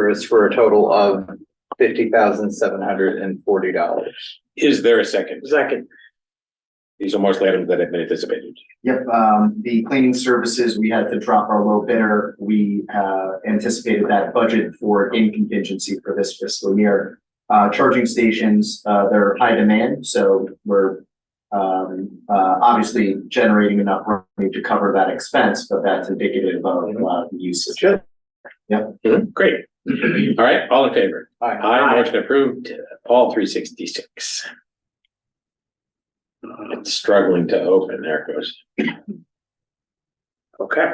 service for a total of fifty thousand seven hundred and forty dollars. Is there a second? Second, These are mostly items that have been anticipated. Yep, um, the cleaning services, we had to drop our low bidder. We, uh, anticipated that budget for in contingency for this fiscal year. Uh, charging stations, uh, they're high demand, so we're, um, uh, obviously generating enough revenue to cover that expense, but that's indicative of, uh, usage. Great. All right, all in favor? Aye. Aye, motion approved. Paul, three sixty-six. It's struggling to open. There it goes. Okay,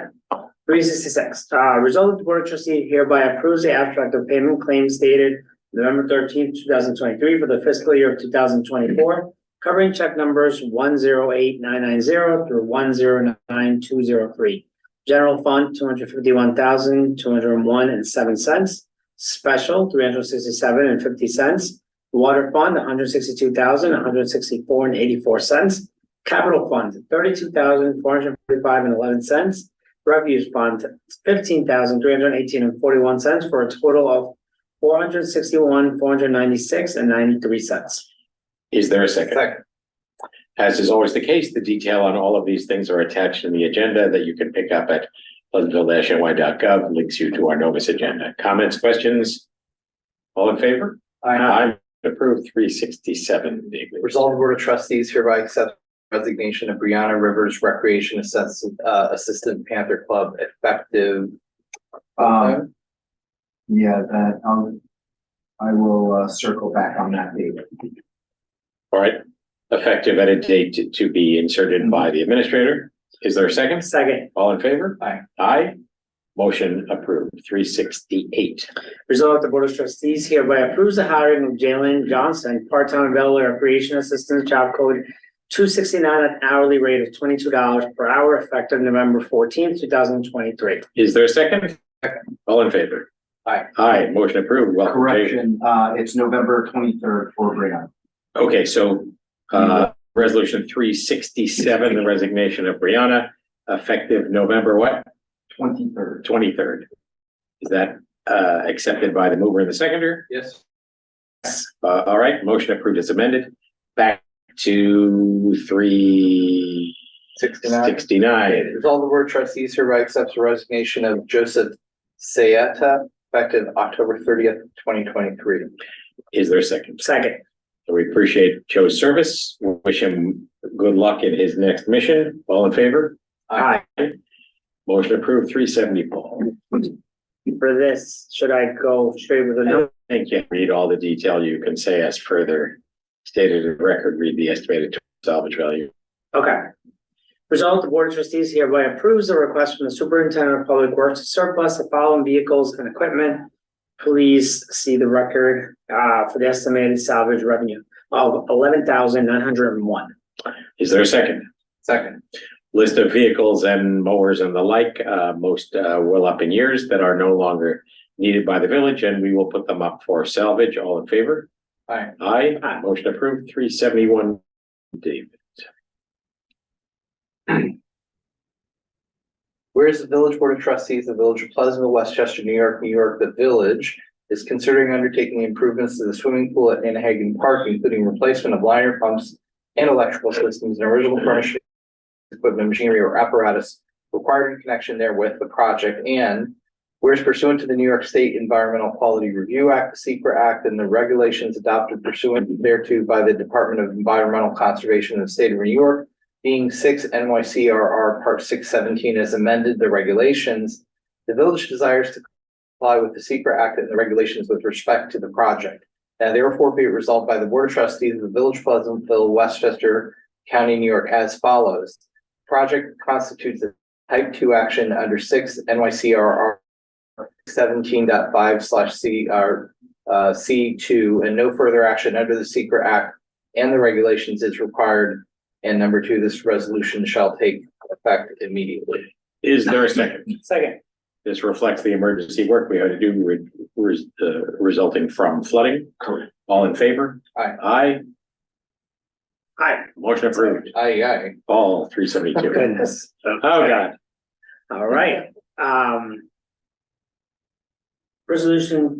three sixty-six, uh, result of the board of trustees hereby approves the abstract of payment claims dated November thirteenth, two thousand twenty-three for the fiscal year of two thousand twenty-four, covering check numbers one zero eight nine nine zero through one zero nine two zero three. General fund, two hundred fifty-one thousand, two hundred and one and seven cents. Special, three hundred sixty-seven and fifty cents. Water fund, one hundred sixty-two thousand, one hundred sixty-four and eighty-four cents. Capital fund, thirty-two thousand, four hundred forty-five and eleven cents. Refuge Fund, fifteen thousand three hundred eighteen and forty-one cents for a total of four hundred sixty-one, four hundred ninety-six and ninety-three cents. is there a second? Second, As is always the case, the detail on all of these things are attached in the agenda that you can pick up at pleasantville-ny.gov, links you to our Novus agenda. Comments, questions? All in favor? I Aye, approved three sixty-seven. resolve the board of trustees hereby accept resignation of Brianna Rivers Recreation Assistant, uh, Assistant Panther Club effective. Um, yeah, that, um, I will, uh, circle back on that date. All right, effective at a date to- to be inserted by the administrator. Is there a second? Second, All in favor? Aye. Aye. Motion approved, three sixty-eight. resolve the Board of Trustees hereby approves the hiring of Jalen Johnson, part-time available recreation assistant, job code two sixty-nine at hourly rate of twenty-two dollars per hour effective November fourteenth, two thousand twenty-three. Is there a second? All in favor? Aye. Aye, motion approved. Welcome, Jason. Correction, uh, it's November twenty-third for Brianna. Okay, so uh, resolution three sixty-seven, the resignation of Brianna, effective November what, twenty-third. twenty-third? Is that uh accepted by the mover and the seconder? Yes. Uh, all right, motion approved as amended. Back to three Sixty-nine. sixty-nine. Resolve the board of trustees hereby accepts the resignation of Joseph Sayata effective October thirtieth, twenty twenty-three. Is there a second? Second, We appreciate Joe's service. Wish him good luck in his next mission. All in favor? aye. Motion approved, three seventy, Paul. For this, should I go straight with the number? I can't read all the detail. You can say as further stated in record, read the estimated total salvage value. Okay. Result, the Board of Trustees hereby approves the request from the Superintendent of Public Works to surplus the following vehicles and equipment. Please see the record uh for the estimated salvage revenue of eleven thousand nine hundred and one. Is there a second? Second, List of vehicles and mowers and the like, uh, most, uh, well up in years that are no longer needed by the village and we will put them up for salvage. All in favor? aye. Aye. Aye. Motion approved, three seventy-one. David. Whereas the Village Board of Trustees, of the Village of Pleasantville, Westchester, New York, New York, the Village is considering undertaking improvements to the swimming pool at Nantahagan Park, including replacement of liner pumps and electrical systems and original furnishing equipment, machinery, or apparatus required in connection therewith the project and whereas pursuant to the New York State Environmental Quality Review Act, the SECR Act, and the regulations adopted pursuant thereto by the Department of Environmental Conservation of the State of New York, being six NYCRR Part six seventeen as amended the regulations, the village desires to comply with the secret act and the regulations with respect to the project. Now therefore be it resolved by the Board of Trustees of the Village of Pleasantville, Westchester County, New York as follows. Project constitutes a type two action under six NYCRR 17.5 slash C R uh C two and no further action under the secret act and the regulations is required and number two, this resolution shall take effect immediately. Is there a second? Second, This reflects the emergency work we had to do re- res- uh, resulting from flooding. Correct. All in favor? Aye. Aye. aye. Motion approved. Aye, aye. All three seventy-two. Goodness. Oh, God. All right, um. Resolution